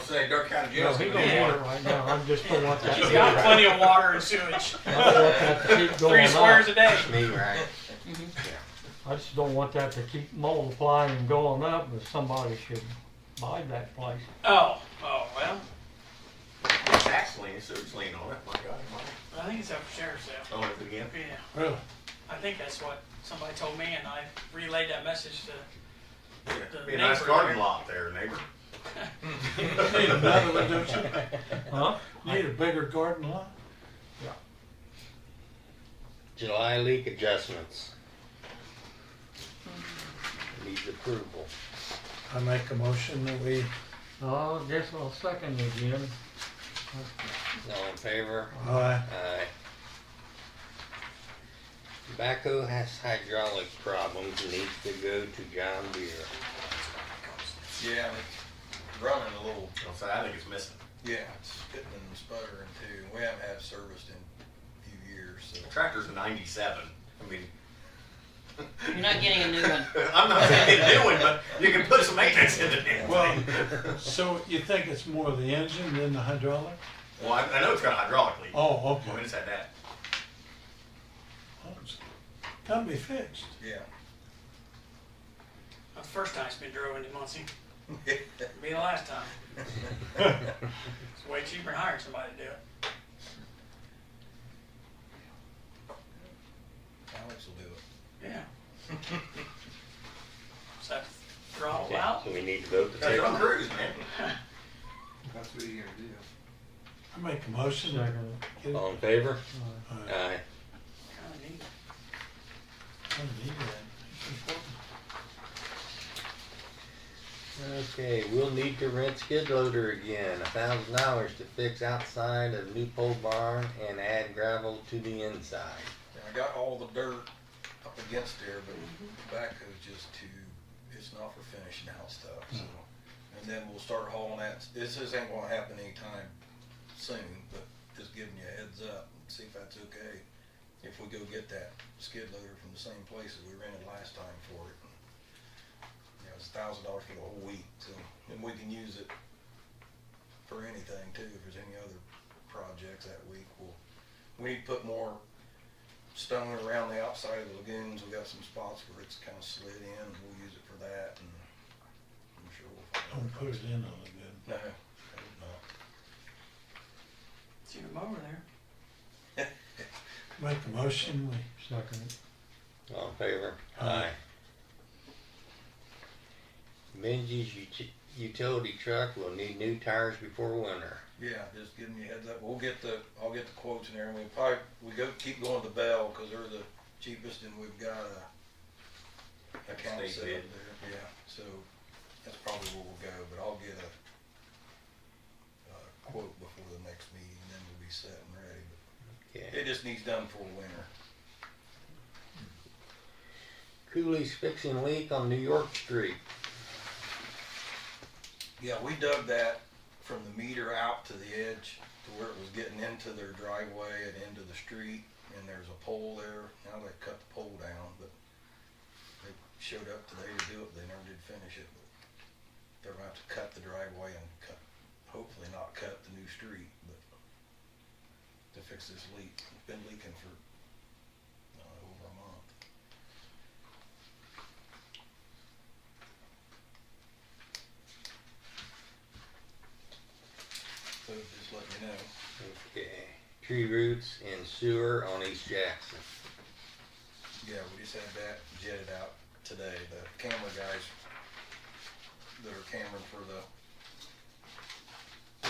saying, Dark County No, Jail's he gonna don't be want here. it right now, I just don't want that. He's got plenty of water and sewage. I don't want that to keep Three going squares up. a day. Me, right? I just don't want that to keep multiplying and going up, but somebody should buy that place. Oh, oh, well, Tax lien, sewage lien on it, my God. I think it's up for sheriff's sale. Own it again. Yeah, Really? I think that's what somebody told me, and I relayed that message to uh, Yeah, The Be a nice neighbor. garden lot there, neighbor. Need another one, don't you? Huh? Need a bigger garden lot? July leak adjustments. Needs approval. I make a motion that we, I guess I'll second it, Jim. All in favor? uh, Aye. Tobacco has hydraulic problems, needs to go to John Deere. Yeah, and it's running a little, I'll say, I think it's missing. yeah, it's spitting and sputtering too. We haven't had it serviced in a few years, so. The tractor's a ninety-seven. I mean, You're not getting a new one. I'm not saying it's new, one, but you can put some maintenance into it. Well- so you think it's more the engine than the hydraulic? Well, I, I know it's got a hydraulic leak. Oh, Well, We okay. just had that. Well, it's Gotta be fixed. Yeah. the first time it's been drove into Muncie. It'll be the last time. It's way cheaper than hiring somebody to do it. Alex will do it. Yeah. So throttle out. So we need to vote to That's take John it. Cruise, man. That's what you gotta do. I make a motion. that Second it. we get it. All in favor? Uh, Aye. Kinda neat. I don't need that. Okay, we'll need to rent skid loader again, a thousand dollars to fix outside of new pole barn and add gravel to the inside. And I got all the dirt up against there, but tobacco's just too, it's not for finishing out stuff, so. And then we'll start hauling that, this this ain't gonna happen anytime soon, but just giving you a heads up and see if that's okay. If we go get that skid loader from the same place that we rented last time for it. You know, it's a thousand dollars for the whole week, so, and we can use it for anything too, if there's any other projects that week, we'll, we need to put more stone around the outside of the lagoons. We've got some spots where it's kind of slid in. We'll use it for that and I'm sure we'll find Don't out. put it in on the good. No, I hope not. See your mower there. Make a motion, we uh, Second it. All in favor? Aye. Benji's ut- utility truck will need new tires before winter. Yeah, just giving you a heads up. We'll get the, I'll get the quotes in there and we'll probably, we go, keep going to Bell because they're the cheapest and we've got a account State set up bid. there. Yeah, so that's probably where we'll go, but I'll get a, a quote before the next meeting and then we'll be set and ready. But Okay. It just needs done for winter. Cooley's fixing leak on New York Street. Yeah, we dug that from the meter out to the edge to where it was getting into their driveway and into the street. And there's a pole there. Now they cut the pole down, but they showed up today to do it. They never did finish it. But they're about to cut the driveway and cut, hopefully not cut the new street, but to fix this leak. It's been leaking for uh, over a month. So just let me know. Okay. Tree roots and sewer on East Jackson. Yeah, we just had that jetted out today. The camera guys that are cameraing for the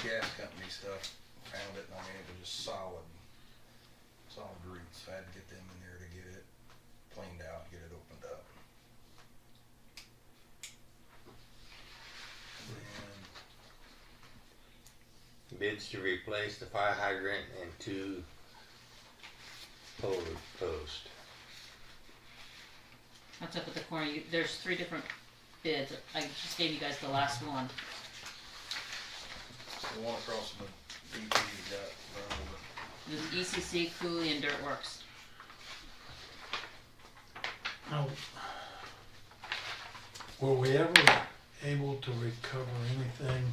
gas company stuff found it, and I mean, it was just solid, solid roots. I had to get them in there to get it cleaned out, get it opened up. And Bids to replace the fire hydrant and two pole posts. That's up at the corner. You, there's three different bids. I just gave you guys the last one. the one across from the BP got run over. It was ECC, Cooley, and Dirt Works. Now, were we ever able to recover anything